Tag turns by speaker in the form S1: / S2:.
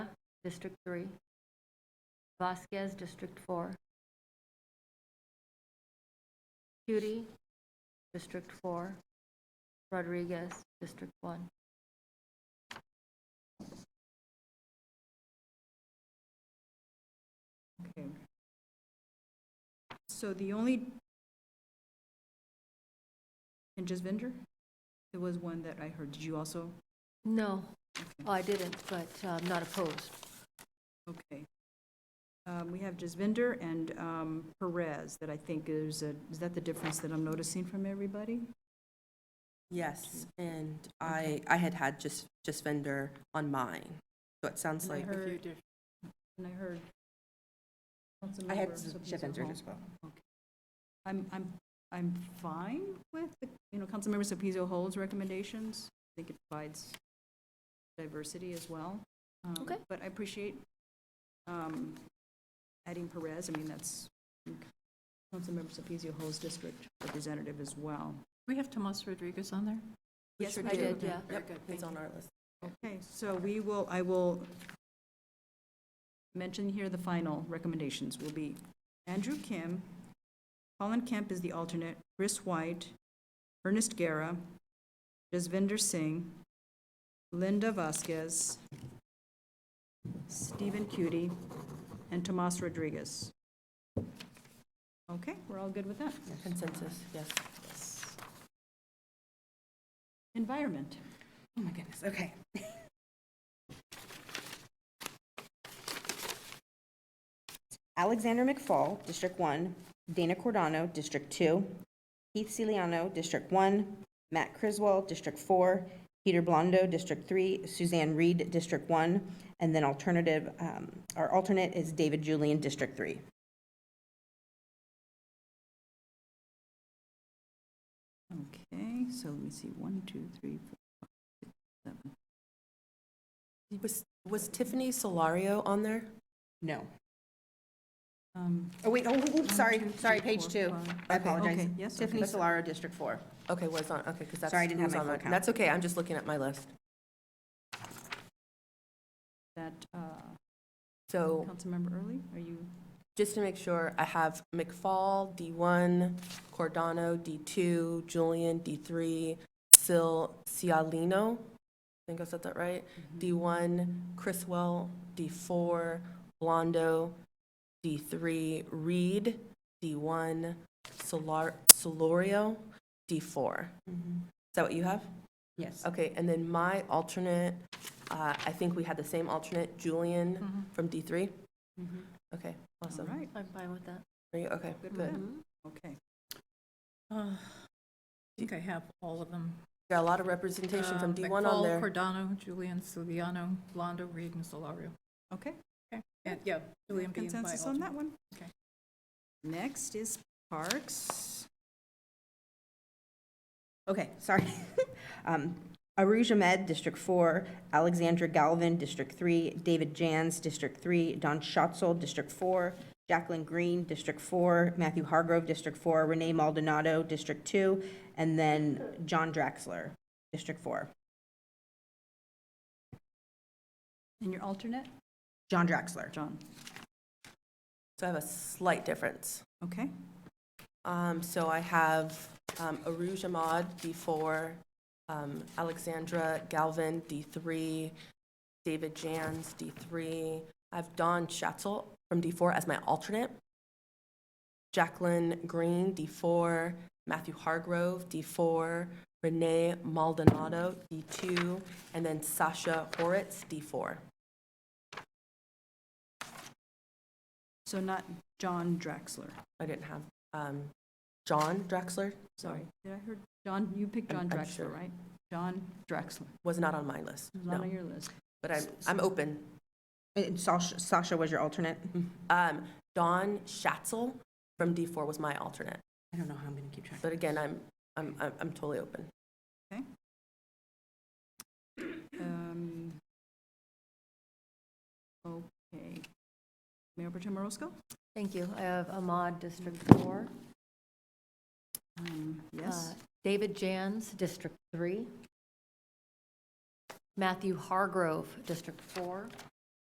S1: District 3. Vasquez, District 4. Cutie, District 4. Rodriguez, District 1.
S2: Okay. So the only, and Jasvinder, there was one that I heard, did you also?
S1: No,
S2: Okay.
S1: oh, I didn't, but uh, I'm not opposed.
S2: Okay. Um, We have Jasvinder and um, Perez that I think is, a- is that the difference that I'm noticing from everybody?
S3: Yes, and I, I had had just, just vendor on mine, so it sounds
S2: And I
S3: like.
S2: heard, and I heard.
S3: I had
S2: Councilmember Sotomayor
S3: vendor
S2: Hall.
S3: as well.
S2: I'm, I'm, I'm fine with, the- you know, Councilmember Sopiso Hall's recommendations. I think it provides diversity as well. Um,
S1: Okay.
S2: But I appreciate um, adding Perez. I mean, that's I think, Councilmember Sopiso Hall's district representative as well.
S4: We have Tomas Rodriguez on there?
S2: Yes,
S4: sure
S2: we
S1: I
S2: do.
S1: did, yeah.
S4: Very good, thank
S3: It's on our list.
S2: Okay, so we will, I will mention here the final recommendations will be Andrew Kim, Colin Kemp is the alternate, Chris White, Ernest Guerra, Jasvinder Singh, Linda Vasquez, Stephen Cutie, and Tomas Rodriguez. Okay, we're all good with that.
S3: Consensus, yes.
S2: Oh Environment.
S3: Oh my goodness, okay.
S5: Alexander McFall, District 1, Dana Cordano, District 2, Keith Ciliano, District 1, Matt Criswell, District 4, Peter Blondo, District 3, Suzanne Reed, District 1, and then alternative, um, our alternate is David Julian, District 3.
S2: Okay, so let me see, one, two, three, four, five, six, seven.
S3: Was, was Tiffany Solario on there?
S5: No.
S2: Um,
S5: Oh, wait, oh, oh, oh, sorry,
S2: One, two,
S5: sorry,
S2: three,
S5: page
S2: four,
S5: 2.
S2: five.
S5: I
S3: Okay,
S5: apologize.
S2: okay, yes, okay.
S5: Tiffany Solaro, District 4.
S3: Okay, was on, okay, because that's.
S5: Sorry, I didn't
S3: who
S5: have
S3: was
S5: my
S3: on
S5: full
S3: mine.
S5: count.
S3: That's okay, I'm just looking at my list.
S2: that, uh,
S3: So
S2: Councilmember Early, are you,
S3: just to make sure, I have McFall, D1, Cordano, D2, Julian, D3, Sil, Cialino, I think I said that right, D1, Chriswell, D4, Blondo, D3, Reed, D1, Solar, Solorio, D4. Is that what you have?
S5: Yes.
S3: Okay, and then my alternate, uh, I think we had the same alternate, Julian from D3? Okay,
S2: all
S3: awesome.
S2: right,
S1: I'm fine with that.
S3: Are you, okay,
S2: good with
S3: good.
S2: that? Okay.
S4: I think I have all of them.
S3: Got a lot of representation from
S4: Um,
S3: D1 on
S4: McFall,
S3: there.
S4: Cordano, Julian, Suliano, Blondo, Reed, and Solario.
S2: Okay,
S4: And, yeah, Julian being my
S2: consensus on
S4: alternate.
S2: that one?
S4: Okay.
S2: Next is Parks.
S5: Okay, sorry. Um, Aruj Ahmed, District 4, Alexandra Galvin, District 3, David Jans, District 3, Don Schatzel, District 4, Jacqueline Green, District 4, Matthew Hargrove, District 4, Renee Maldonado, District 2, and then John Draxler, District 4.
S2: And your alternate?
S5: John Draxler.
S2: John.
S3: So I have a slight difference.
S2: Okay,
S3: Um, So I have um, Aruj Ahmad, D4, um, Alexandra Galvin, D3, David Jans, D3. I have Don Schatzel from D4 as my alternate. Jacqueline Green, D4, Matthew Hargrove, D4, Renee Maldonado, D2, and then Sasha Horitz, D4.
S2: so not John Draxler.
S3: I didn't have, um, John Drexler,
S2: Sorry, did I heard, John, you picked John
S3: I'm- I'm sure.
S2: Draxler, right? John Draxler,
S3: was not on my list,
S2: He's not
S3: no,
S2: on your list.
S3: but I'm, I'm open.
S5: And Uh, Sasha Sasha was your alternate?
S3: Um, Don Schatzel from D4 was my alternate,
S5: I don't know how I'm going to keep track.
S3: but again, I'm, I'm, I'm I'm totally open.
S2: Um, Okay. Mayor Protem Roscoe?
S1: Thank you. I have Ahmad, District 4.
S2: Um, Yes,
S1: Uh, David Jans, District 3. Matthew Hargrove, District 4.